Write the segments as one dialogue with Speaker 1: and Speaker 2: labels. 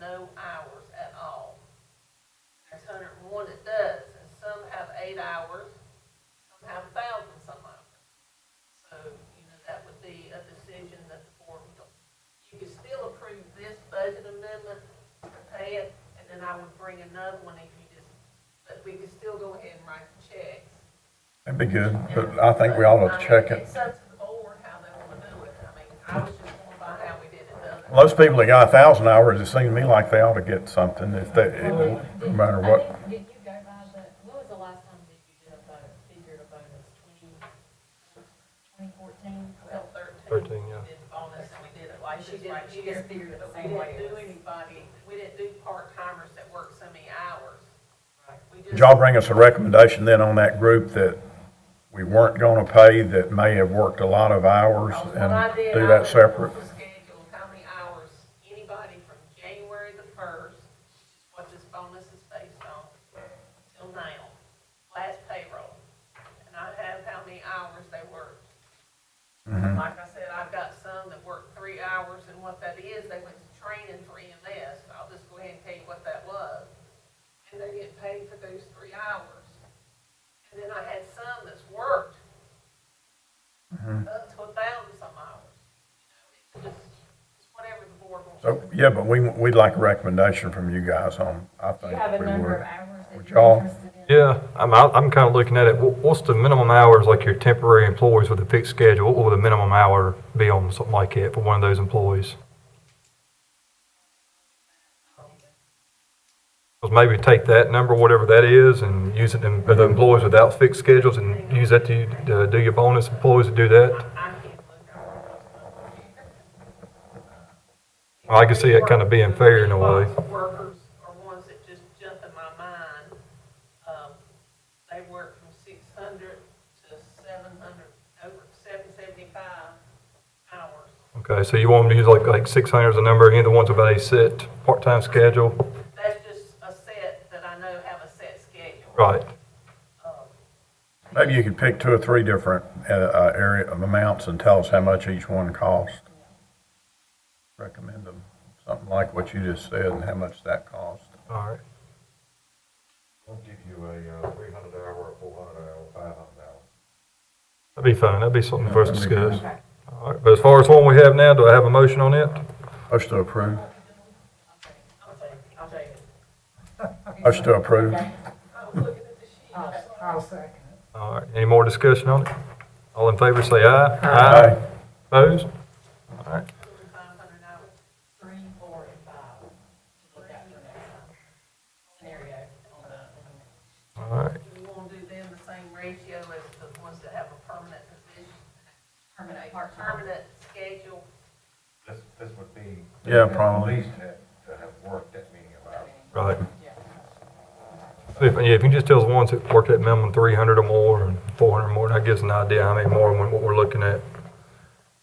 Speaker 1: no hours at all. There's hundred and one that does, and some have eight hours, some have a thousand, some of them. So, you know, that would be a decision that the board would, you could still approve this budget amendment and pay it, and then I would bring another one if you just, but we could still go ahead and write the checks.
Speaker 2: That'd be good, but I think we ought to check it.
Speaker 1: It's up to the board how they wanna do it, I mean, I was just going by how we did it the other.
Speaker 2: Most people that got a thousand hours, it seemed to me like they ought to get something if they, it
Speaker 3: Well,
Speaker 2: won't- no
Speaker 3: did-
Speaker 2: matter
Speaker 3: I
Speaker 2: what.
Speaker 3: think- Did you go by the, when was the last time that you did a vote, figured a vote, it was twenty, twenty fourteen?
Speaker 1: Well, thirteen,
Speaker 4: 13, yeah.
Speaker 1: we did the bonus and we did it like
Speaker 3: She
Speaker 1: this
Speaker 3: did-
Speaker 1: right
Speaker 3: she
Speaker 1: here.
Speaker 3: just figured it
Speaker 1: But
Speaker 3: the
Speaker 1: we
Speaker 3: same way
Speaker 1: didn't do
Speaker 3: it was.
Speaker 1: anybody, we didn't do part-timers that work so many hours. We just-
Speaker 2: Did y'all bring us a recommendation then on that group that we weren't gonna pay that may have worked a lot of hours
Speaker 1: Because what I
Speaker 2: and
Speaker 1: did,
Speaker 2: do
Speaker 1: I
Speaker 2: that
Speaker 1: went
Speaker 2: separate?
Speaker 1: on the Schedule how many hours anybody from January the first, what this bonus is based on, till now, last payroll. And I have how many hours they worked. Like I said, I've got some that work three hours, and what that is, they went to training for E EMS. I'll just go ahead and tell you what that was. And they get paid for those three hours. And then I had some that's worked up to a thousand some hours. You know, it's just- It's whatever the board wants.
Speaker 2: So, yeah, but we, we'd like a recommendation from you guys on, I
Speaker 3: Do you have a
Speaker 2: think we
Speaker 3: number of
Speaker 2: would.
Speaker 3: hours that
Speaker 2: Would
Speaker 3: you're
Speaker 2: y'all-
Speaker 3: interested in?
Speaker 4: Yeah, I'm, I'm kind of looking at it. Wh- What's the minimum hours, like your temporary employees with a fixed schedule? What would the minimum hour be on something like that for one of those employees? Because maybe take that number, whatever that is, and use it in, for the employees without fixed schedules and use that to, uh, do your bonus employees to do that?
Speaker 1: I can't look at all those numbers.
Speaker 4: Well, I can see it kinda being fair in a way.
Speaker 1: Workers are ones that just jump in my mind. Um, They work from six hundred to seven hundred, over seven seventy-five hours.
Speaker 4: Okay, so you want them to use like, like six hundred as a number, any of the ones about a set part-time schedule?
Speaker 1: That's just a set that I know have a set schedule.
Speaker 4: Right.
Speaker 1: Um,
Speaker 2: Maybe you could pick two or three different, uh, uh, area of amounts and tell us how much each one cost. Recommend them, something like what you just said and how much that cost.
Speaker 4: All right.
Speaker 5: I'll give you a uh, three hundred hour, four hundred hour, five hundred hour.
Speaker 4: That'd be fine. That'd be something for us to
Speaker 2: That'd be good.
Speaker 4: discuss. All right, but as far as one we have now, do I have a motion on it?
Speaker 2: Motion to approve.
Speaker 1: I'll take it, I'll take it.
Speaker 2: Motion to approve.
Speaker 1: I was looking at the sheet.
Speaker 3: I'll, I'll second it.
Speaker 4: All right, any more discussion on it? All in favor, say aye.
Speaker 2: Aye.
Speaker 4: Opposed? All right,
Speaker 1: Five hundred hours.
Speaker 3: Three, four, and five, to look at for next time. Scenario on the,
Speaker 4: all right.
Speaker 1: Do you want to do them the same ratio as the ones that have a permanent position?
Speaker 3: permanent, part-time.
Speaker 1: Permanent schedule?
Speaker 5: This, this would be.
Speaker 2: Yeah, probably.
Speaker 5: At least that, that have worked that many of hours.
Speaker 4: Right.
Speaker 3: Yeah.
Speaker 4: If, yeah, if you just tell us ones that work at minimum three hundred or more and four hundred or more, that gives an idea how many more and what we're looking at.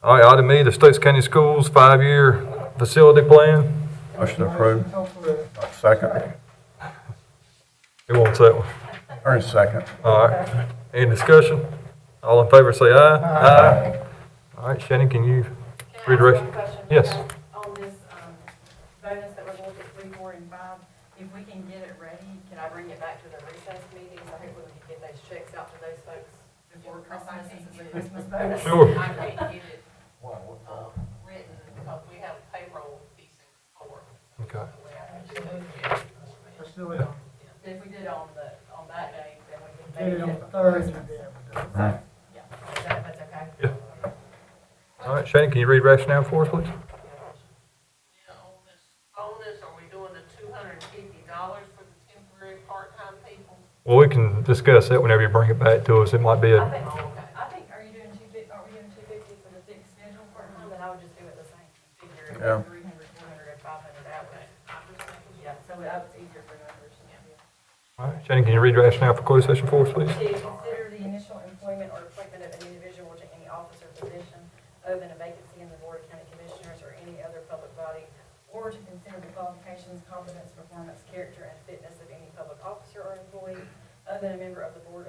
Speaker 4: All right, item E, the States County Schools five-year facility plan.
Speaker 2: Motion to approve. Second.
Speaker 4: Who wants that one?
Speaker 2: Ernest, second.
Speaker 4: All right, any discussion? All in favor, say aye. Aye. All right, Shannon, can you
Speaker 3: Can I ask
Speaker 4: Redirection.
Speaker 3: one question?
Speaker 4: Yes.
Speaker 3: On this um, bonus that we're going to three, four, and five, if we can get it ready, can I bring it back to the recess meetings? I hope we can get those checks out to those folks before Christmas, since it's a Christmas bonus.
Speaker 4: Sure.
Speaker 1: I can't get it
Speaker 5: Why, what-
Speaker 1: um, written because we have payroll these four.
Speaker 4: Okay.
Speaker 3: But If we did it on the, on that day, then we can
Speaker 6: Get
Speaker 3: maybe.
Speaker 6: it
Speaker 3: do
Speaker 6: on
Speaker 3: it for
Speaker 6: Thursday,
Speaker 3: Christmas.
Speaker 6: then
Speaker 3: So, Yeah, is that, that's okay?
Speaker 4: All right, Shannon, can you read rationale for us, please?
Speaker 1: Now, on this bonus, are we doing the two hundred and fifty dollars for the temporary part-time people?
Speaker 4: Well, we can discuss that whenever you bring it back to us. It might be
Speaker 3: I
Speaker 4: a,
Speaker 3: think,
Speaker 6: Oh,
Speaker 3: I think, are you doing two fifty, are we doing two fifty for the fixed schedule part time? Then I would just do it the same, figure it
Speaker 2: Yeah.
Speaker 3: at three hundred, four hundred, and five hundred out.
Speaker 1: Okay, I'm just thinking,
Speaker 3: Yeah, so that was easier for numbers.
Speaker 4: all right, Shannon, can you read rationale for closed session for us, please?
Speaker 3: To consider the initial employment or appointment of an individual to any office or position, open a vacancy in the Board of County Commissioners or any other public body, or to consider the qualifications, competence, performance, character, and fitness of any public officer or employee, other than a member of the Board